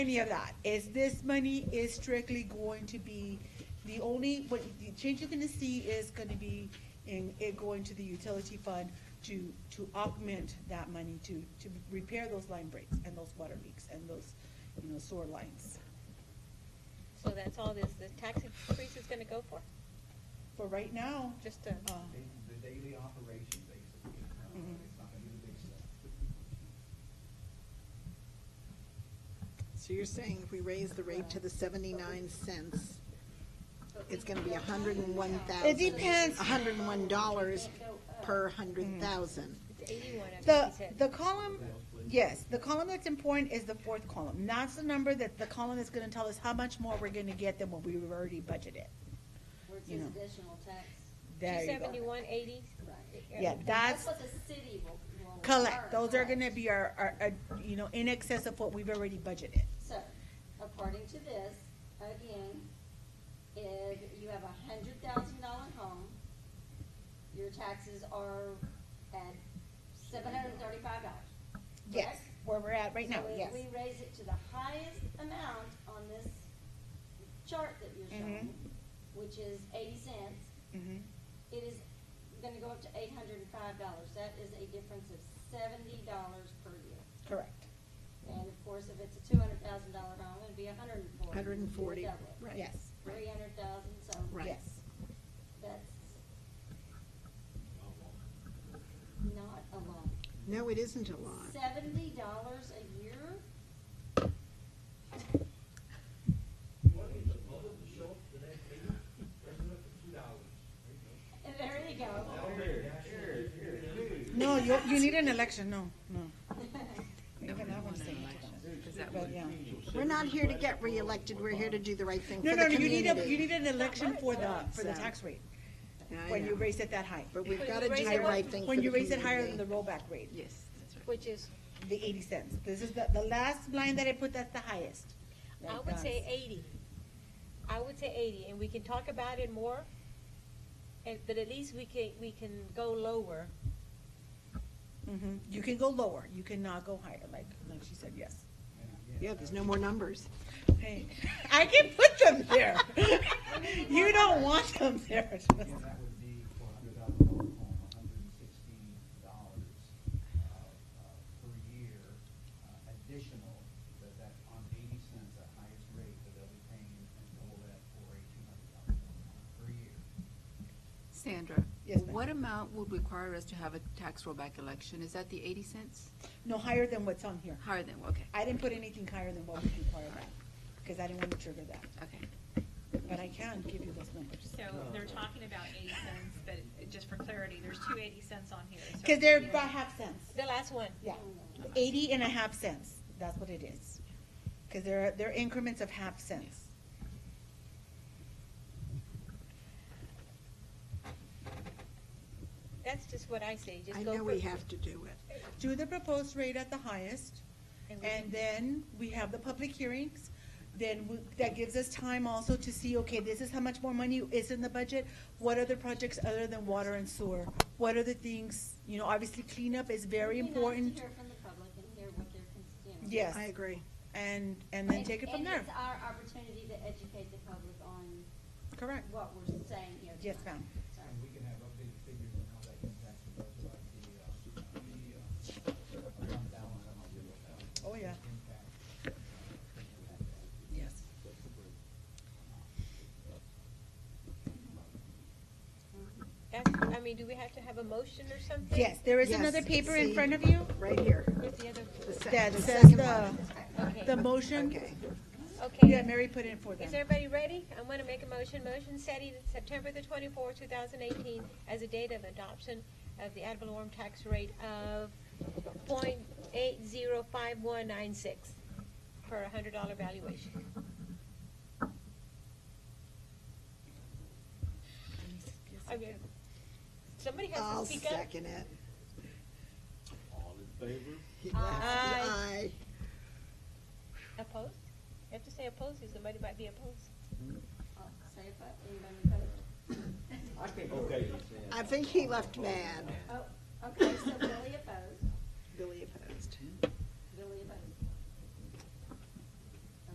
any of that, is this money is strictly going to be, the only, what, the change you're gonna see is gonna be in, it going to the utility fund to, to augment that money to, to repair those line breaks and those water leaks and those, you know, sewer lines. So that's all this, the tax increase is gonna go for, For right now, just to, uh, The daily operation, basically. Uh, Mhm. It's not gonna be the big stuff. So you're saying if we raise the rate to the seventy-nine cents, it's gonna be a hundred and one thousand. It depends. hundred and one dollars per Mm. hundred thousand. it's eighty-one, I think The, he said. the column, yes, the column that's important is the fourth column. That's the number that the column is gonna tell us how much more we're gonna get than what we've already budgeted. Where it you says know. additional tax. There you go. 271, 80? Right. Yeah, that's, what the city will. will collect, earn, those are correct. gonna be our, our, our, you know, in excess of what we've already budgeted. So, according to this, again, if you have a hundred thousand dollar home, your taxes are at seven hundred and thirty-five dollars. Yes, where we're at right now, So if yes. we raise it to the highest amount on this chart that you're Mm-hmm. showing, which is eighty cents, Mhm. it is gonna go up to eight hundred and five dollars. That is a difference of seventy dollars per year. Correct, And of course, if it's a two hundred thousand dollar home, it'd be a hundred and forty. Hundred and forty, right. yes, Three hundred thousand, so Right. yes. that's not a lot. No, it isn't a lot. Seventy dollars a year? And there you go. No, you, you need an election, no, no. You're gonna have one saying it. But, yeah. We're not here to get reelected, we're here to do the right thing for No, the no, no, community. you need a, you need an election for the, for the So- tax rate, I when you know. raise it that high. But we've When gotta you do raise the it- right thing for When the you raise it higher than the community. rollback rate, Yes, that's right. Which is, the eighty cents, this is the, the last line that I put, that's the highest. I would say eighty. I would say eighty, and we can talk about it more, and, but at least we can, we can go lower. hmm you can go lower, you cannot go higher, like, like she said, yes. Yeah, there's no more numbers. Hey, I can put them there. You don't want them there. And that would be for a hundred thousand dollar home, a hundred and sixteen dollars, uh, uh, per year, uh, additional, that, that on eighty cents, the highest rate that they'll be paying and all that for a two hundred thousand dollar home per year. Sandra? Yes, ma'am. What amount would require us to have a tax rollback election? Is that the eighty cents? No, higher than what's on here. Higher than, okay, I didn't put anything higher than what we require that, because I didn't want to trigger that, okay. but I can give you those numbers. So they're talking about eighty cents, but just for clarity, there's two eighty cents on here. so Because they're about half cents, The last one, yeah, eighty and a half cents, that's what it is. Because they're, they're increments of half cents. that's just what I say, just I go know we for- have to do it. Do the proposed rate at the highest, And we And can- then we have the public hearings, then we- that gives us time also to see, okay, this is how much more money is in the budget. What other projects other than water and sewer? What other things, you know, obviously cleanup is very It'd be nice important. to hear from the public and hear what their cons- you know. Yes, I agree. and, and then take it from And- there. And it's our opportunity to educate the public on Correct. what we're saying here. Yes, tonight. ma'am. So, And we can have updated figures on how that impacts the budget, like the, uh, the, uh, fund balance, how much it will have Oh, yeah, impact. yes. that's, I mean, do we have to have a motion or something? Yes, there is Yes, another paper in see. front of you Right here. Where's the other? The se- that the says second the, one. Okay. the motion. Okay. Okay. Yeah, Mary put it in for them. Is everybody ready? I'm gonna make a motion, motion setting September the twenty-fourth, two thousand eighteen as the date of adoption of the ad valorem tax rate of point eight zero five one nine six for a hundred dollar valuation. I mean, Somebody has I'll to speak up. second it. All in favor? Yeah. Aye. Aye. Opposed? You have to say opposed, 'cause somebody might be opposed. I'll say it, but anybody opposed? Okay. I think he left mad. Oh, okay, so Billy opposed. Billy opposed.